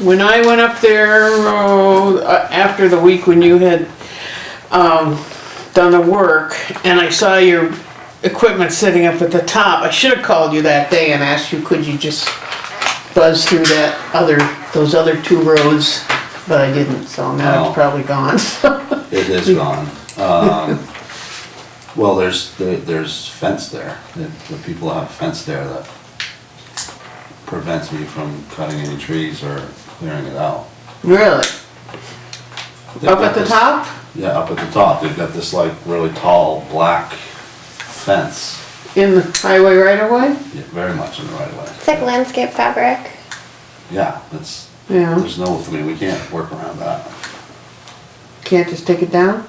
when I went up there, oh, uh, after the week when you had, um, done the work, and I saw your equipment sitting up at the top, I should have called you that day and asked you, could you just buzz through that other, those other two roads? But I didn't, so now Oh. it's probably gone. It Hmm. is gone. Um, well, there's, there- there's fence there. The, the people have fence there that prevents me from cutting any trees or clearing it out. Really? They've Up got at the this- top? Yeah, up at the top. They've got this like really tall, black fence, In the highway right of way? yeah, very much in the right way. It's like landscape fabric. Yeah, that's, Yeah, there's no, I mean, we can't work around that. can't just take it down?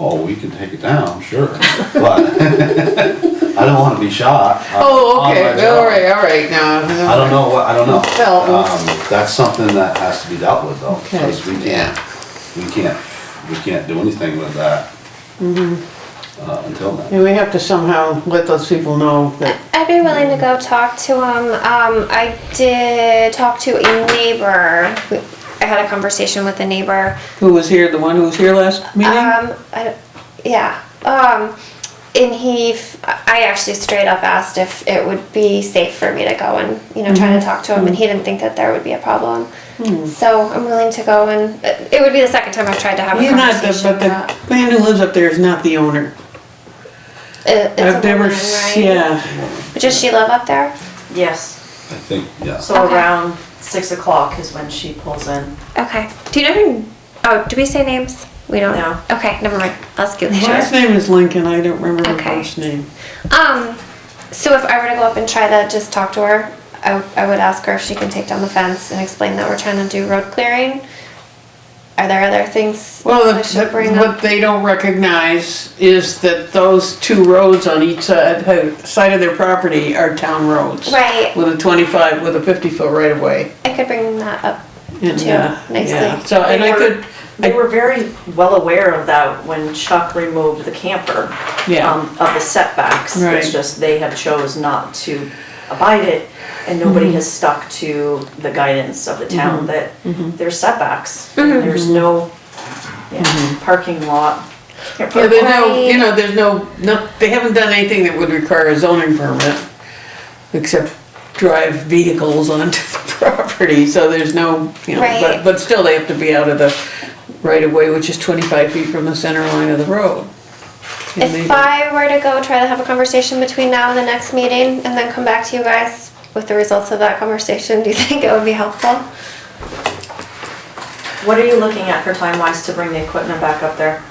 Oh, we can take it down, sure, but I don't wanna be shot. on- Oh, on my okay, all job. right, all right, now. I don't know what, I don't know. Well, um, Um, that's something that has to be dealt with though, Okay, because we yeah. can't, we can't, we can't do anything with that. Mm-hmm. Uh, until then. And we have to somehow let those people know that, I'd be willing to go talk to him. Um, I did talk to a neighbor. We- I had a conversation with a neighbor. who was here, the one who was here last meeting? Um, I, don't- yeah. Um, and he, f- I actually straight up asked if it would be safe for me to go and, you know, Mm-hmm. try to talk to him, and he didn't think that there would be a problem. Hmm. So I'm willing to go and, uh, it it would be the second time I've tried to have a He's not, the- conversation. but the man who lives up there is not the owner. but it- it's a I've never, woman, s- right? yeah, But Does she live up there? Yes, I think, yeah, so Okay. around six o'clock is when she pulls in. Okay. Do you know who? Oh, do we say names? We don't. No. Okay, never mind. I'll ask you later. last name is Lincoln, I don't remember her Okay. first name. Um, so if I were to go up and try to just talk to her, I, I would ask her if she can take down the fence and explain that we're trying to do road clearing. Are there other things Well, the- I should bring the- up? what they don't recognize is that those two roads on each side, side of their property are town roads. Right. With a twenty-five, with a fifty-foot right-of-way. I could bring that up. and, Too, uh, nicely. yeah. So, and They I were- could, They I- were very well aware of that when Chuck removed the camper. Yeah. um, Of the setbacks, Right. it's just they have chose not to abide it, and Mm-hmm. nobody has stuck to the guidance of the town that Mm-hmm. there's setbacks. and There's no, yeah, Mm-hmm. parking lot. can't Yeah, park there's no, Right. you know, there's no, no, they haven't done anything that would require a zoning permit, except drive vehicles onto the property, so there's no, you know, Right. but, but still they have to be out of the right of way, which is twenty-five feet from the center line of the road. And If they- I were to go try to have a conversation between now and the next meeting, and then come back to you guys with the results of that conversation, do you think it would be helpful? What are you looking at for time wise to bring the equipment back up there?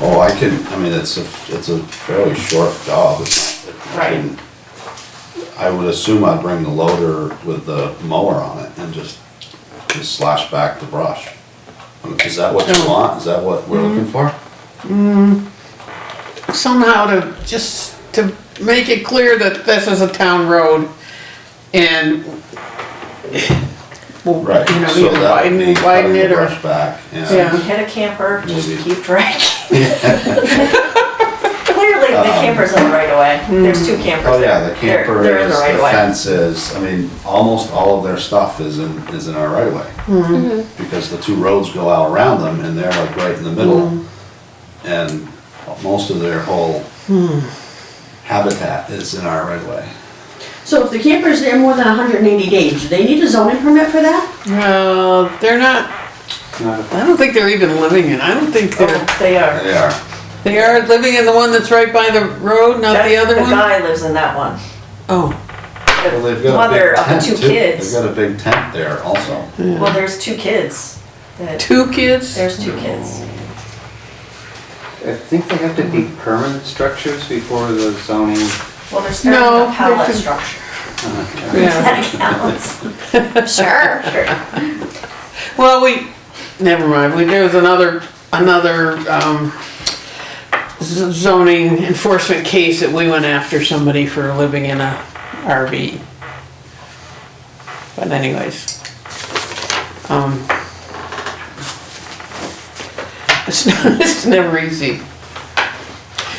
oh, I can, I mean, it's a, it's a fairly short job. It's- I Right. can- I would assume I'd bring the loader with the mower on it and just, just slash back the brush. Is that what you want? Is that what Mm-hmm. we're looking for? somehow to, just to make it clear that this is a town road and. well, Right, You know, so either that would be widen, cutting widen the it or. brush back, Yeah. yeah. Hit a camper, just Maybe. keep dragging. Clearly, the camper's in the right of way. There's two campers Um, Oh, there. yeah, the They're- camper They're in is, the the right of way. fence is, I mean, almost all of their stuff is in, is in our right of way. Mm-hmm. Because the two roads go out around them and they're like right in the middle. And most of their whole habitat is in our right of way. So if the camper's there more than hundred and eighty days, do they need a zoning permit for that? No, they're not, I don't think they're even living in, I don't think they're, Oh, They are. They are, they are living in the one that's right by the road, not the That's- other The one? guy lives in that one. Oh, well, The they've got a mother big of the tent two too. kids. They've got a big tent there also. Well, there's two kids. That, two kids? there's two kids. I think they have to be permanent structures before the zoning. Well, there's No, starting a pallet there's- structure. Uh-huh. Yeah, That counts. Sure. well, we, never mind, we, there was another, another, um, z- zoning enforcement case that we went after somebody for living in a RV. But anyways. Um. It's, it's never easy.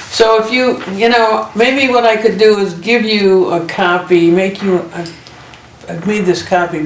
So if you, you know, maybe what I could do is give you a copy, make you, I've, I've made this copy